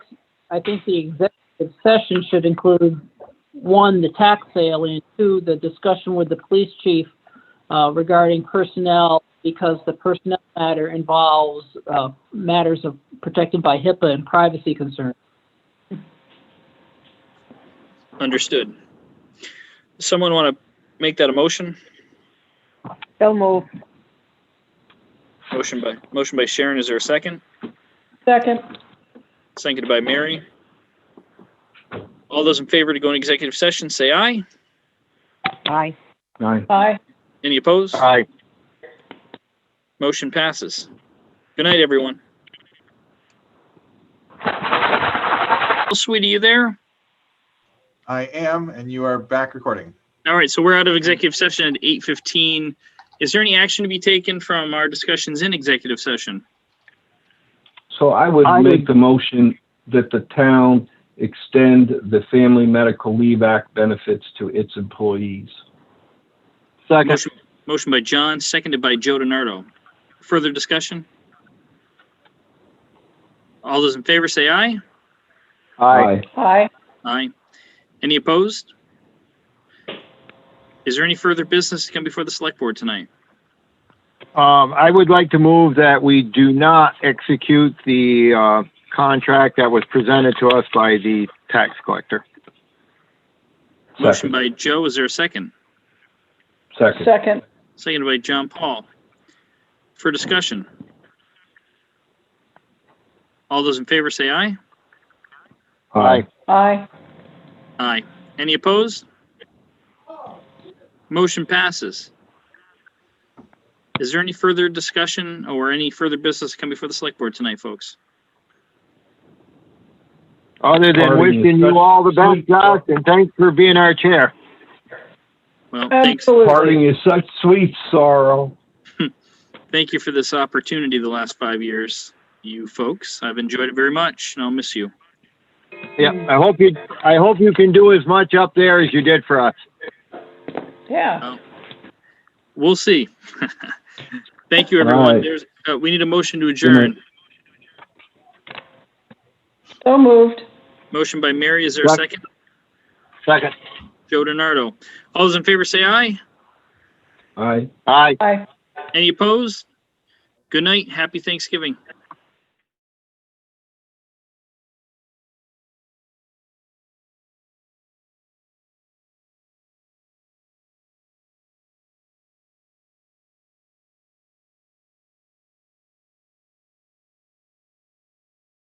I think the executive session should include, one, the tax sale, and two, the discussion with the police chief uh, regarding personnel, because the personnel matter involves uh, matters of protected by HIPAA and privacy concerns. Understood. Does Someone want to make that a motion? So move. Motion by, motion by Sharon, is there a second? Second. Seconded by Mary. All those in favor to go in executive session, say aye. Aye. Aye. Aye. Any opposed? Aye. Motion passes. Good night, everyone. Sweetie, you there? I am, and you are back recording. All right, so we're out of executive session at 8:15. Is there any action to be taken from our discussions in executive session? So I would I make the motion that the town extend the Family Medical Leave Act benefits to its employees. Motion- Motion by John, seconded by Joe DiNardo. Further discussion? All those in favor say aye. Aye. Aye. Aye. Any opposed? Is there any further business to come before the select board tonight? Um, I would like to move that we do not execute the, uh, contract that was presented to us by the tax collector. Motion by Joe, is there a second? Second. Second. Seconded by John Paul. For discussion? All those in favor say aye. Aye. Aye. Aye. Any opposed? Motion passes. Is there any further discussion or any further business to come before the select board tonight, folks? Other than wishing you all the best, Josh, and thanks for being our chair. Um, Well, thanks, Parting is such sweet sorrow. thank you for this opportunity the last five years, you folks. I've enjoyed it very much and I'll miss you. Yeah, I hope you, I hope you can do as much up there as you did for us. Yeah. We'll see. Thank you, All everyone. right. There's, uh, we need a motion to adjourn. So moved. Motion by Mary, is there a Sec- second? Second. Joe DiNardo. All those in favor say aye. Aye. Aye. Aye. Any opposed? Good night. Happy Thanksgiving.